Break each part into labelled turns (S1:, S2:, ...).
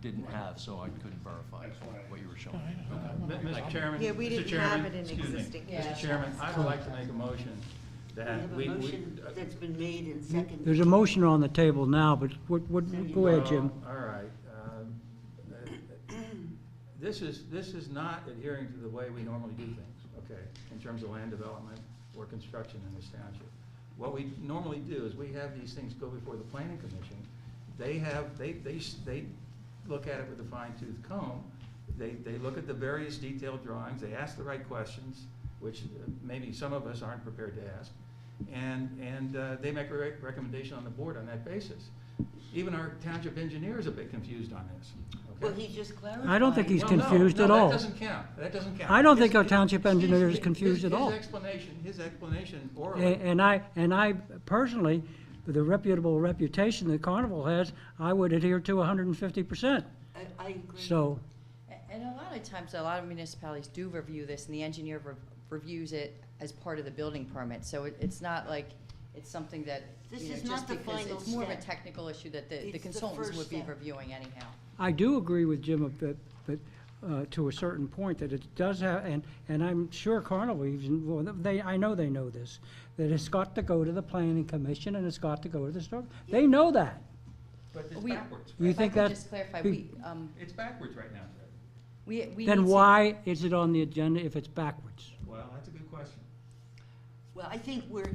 S1: didn't have, so I couldn't verify
S2: That's why.
S1: what you were showing.
S3: Mr. Chairman.
S4: Yeah, we
S3: Mr.
S4: didn't
S3: Chairman,
S4: have it in
S3: excuse me.
S4: existing.
S5: Yeah,
S3: Mr.
S5: that's
S3: Chairman,
S5: why
S3: I
S5: it's
S3: would like to make a motion
S6: We
S3: that
S6: have a
S3: we. we-
S6: motion that's been made and seconded.
S7: There's a motion on the table now, but what, what, go ahead, Jim.
S3: Well, All right. um, uh, This is, this is not adhering to the way we normally do things, okay, in terms of land development or construction in this township. What we normally do is we have these things go before the planning commission. They have, they, they, s- they look at it with a fine tooth comb. They, they look at the various detailed drawings, they ask the right questions, which uh, maybe some of us aren't prepared to ask. And, and uh, they make a re- recommendation on the board on that basis. Even our township engineer is a bit confused on this, okay?
S6: Well, he just clarified.
S7: I don't think he's
S3: Well, no,
S7: confused
S3: no,
S7: at
S3: that
S7: all.
S3: doesn't count. That doesn't count.
S7: I don't think
S3: His-
S7: our township
S3: his-
S7: engineer is
S3: his-
S7: confused at all. Eh,
S3: His explanation, his explanation
S7: A-
S3: orally.
S7: And I, and I personally, with the reputable reputation that Carnival has, I would adhere to hundred and fifty percent.
S6: I, I agree.
S7: So,
S5: A- And a lot of times, a lot of municipalities do review this, and the engineer rev- reviews it as part of the building permit, so it, it's not like, it's something that,
S6: This
S5: you know,
S6: is
S5: just
S6: not the
S5: because
S6: final
S5: it's more of a
S6: step.
S5: technical issue that the-
S6: It's
S5: the
S6: the
S5: consultants
S6: first
S5: would be
S6: step.
S5: reviewing anyhow.
S7: I do agree with Jim of that, that, uh, to a certain point, that it does have, and, and I'm sure Carnival even, well, they, I know they know this, that it's got to go to the planning commission and it's got to go to the store. They know that.
S3: But it's
S5: We-
S3: backwards.
S7: You
S5: If I
S7: think
S5: could
S7: that-
S5: just clarify,
S7: we-
S5: we, um,
S3: It's backwards right now, Fred.
S5: we, we. need
S7: Then
S5: to-
S7: why is it on the agenda if it's backwards?
S3: Well, that's a good question.
S6: Well, I think we're,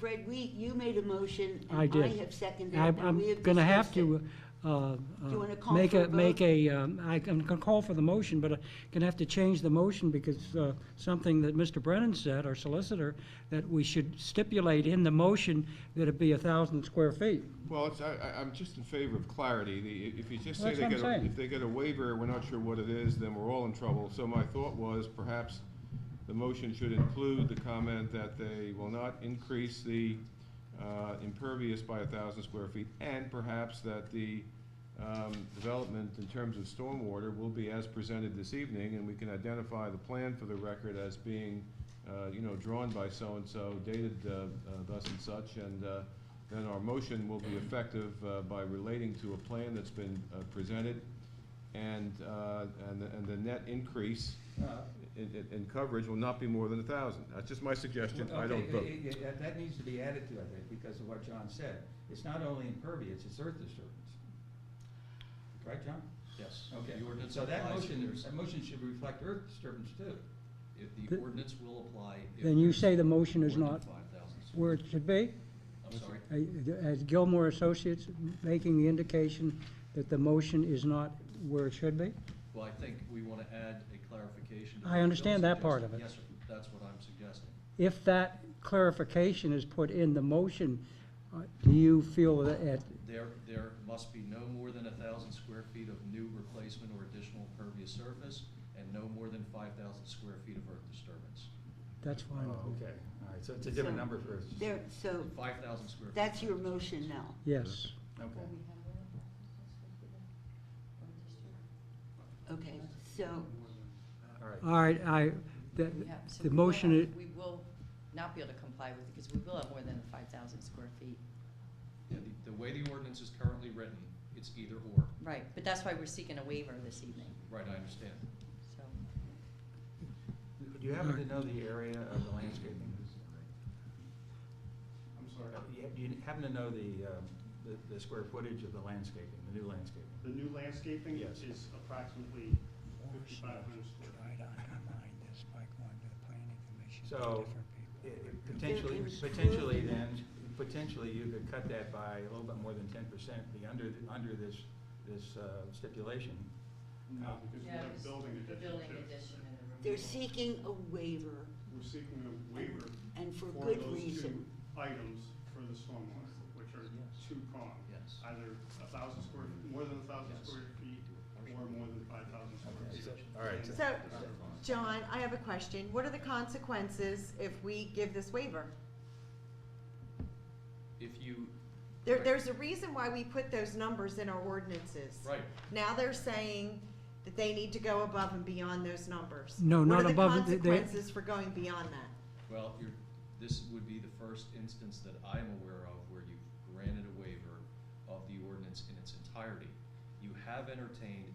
S6: Fred, we, you made a motion
S7: I
S6: and I
S7: did.
S6: have seconded it.
S7: I'm,
S6: and we
S7: I'm gonna have
S6: discussed it.
S7: to, uh, uh,
S6: Do you wanna call
S7: make
S6: for a
S7: a, make
S6: vote?
S7: a, um, I can can call for the motion, but I'm gonna have to change the motion because, uh, something that Mr. Brennan said, our solicitor, that we should stipulate in the motion that it be a thousand square feet.
S2: Well, it's, I, I, I'm just in favor of clarity. The, if you just say
S7: That's
S2: they
S7: what I'm
S2: get, a-
S7: saying.
S2: if they get a waiver, we're not sure what it is, then we're all in trouble. So my thought was perhaps the motion should include the comment that they will not increase the, uh, impervious by a thousand square feet and perhaps that the, um, development in terms of stormwater will be as presented this evening and we can identify the plan for the record as being, uh, you know, drawn by so-and-so, dated, uh, uh, thus and such, and, uh, then our motion will be effective uh, by relating to a plan that's been uh, presented, and, uh, and the- and the net increase
S3: Uh,
S2: in, in- in coverage will not be more than a thousand. That's just my suggestion, I don't
S3: Okay,
S2: vote.
S3: it- it- it- That needs to be added to, I think, because of what John said. It's not only impervious, it's earth disturbance. Right, John?
S1: Yes.
S3: Okay,
S1: The ordinance
S3: so that
S1: applies if
S3: motion,
S1: there's-
S3: that motion should reflect earth disturbance too.
S1: If the
S7: Th-
S1: ordinance will apply. if
S7: Then you
S1: there's
S7: say the motion is
S1: more than
S7: not
S1: 5,000 square
S7: where it should be,
S1: feet. I'm sorry.
S7: uh, as Gilmore Associates making the indication that the motion is not where it should be?
S1: Well, I think we want to add a clarification. to
S7: I
S1: what Bill
S7: understand that part
S1: suggested.
S7: of
S1: Yes, sir. that's what I'm suggesting.
S7: If that clarification is put in the motion, uh, do you feel that it,
S1: There, there must be no more than a thousand square feet of new replacement or additional impervious surface, and no more than five thousand square feet of earth disturbance.
S7: that's fine. with me.
S3: Oh, Okay, all right, so it's a different
S6: So,
S3: number for earth.
S6: There, so
S1: Five thousand square. feet.
S6: that's your motion now.
S7: Yes.
S3: Okay.
S6: Okay, so,
S3: All right.
S7: All right, I, the,
S5: we have- so
S7: the
S5: we will
S7: motion,
S5: have-
S7: is-
S5: We will not be able to comply with it, because we will have more than five thousand square feet.
S1: Yeah, the, the way the ordinance is currently written, it's either or.
S5: Right, but that's why we're seeking a waiver this evening,
S1: Right, I understand.
S5: so.
S3: Do you happen to know the area of the landscaping?
S2: I'm
S3: sorry? Do you happen to know the, um, the- the square footage of the landscaping, the new landscaping?
S8: The new landscaping
S3: Yes.
S8: is approximately fifty-five hundred square.
S3: So, i- i- potentially, potentially then, potentially you could cut that by a little bit more than ten percent, be under, th- under this, this uh, stipulation.
S8: No, um, because we have a building addition too.
S5: addition and the
S6: they're seeking a waiver
S8: We're seeking a waiver
S6: and for
S8: for
S6: good
S8: those two
S6: reason.
S8: items for the stormwater, which are
S1: Yes.
S8: two-pronged.
S1: Yes.
S8: Either a thousand square, more than a thousand
S1: Yes.
S8: square feet or more than five thousand square
S3: Okay,
S8: feet.
S3: so- All right.
S4: So, John, I have a question. What are the consequences if we give this waiver?
S1: If you,
S4: There,
S1: Right.
S4: there's a reason why we put those numbers in our ordinances.
S1: right,
S4: Now they're saying that they need to go above and beyond those numbers.
S7: No, not above
S4: What
S7: it,
S4: are
S7: they-
S4: the
S7: they-
S4: consequences for going beyond that?
S1: well, you're, this would be the first instance that I'm aware of where you've granted a waiver of the ordinance in its entirety. you have entertained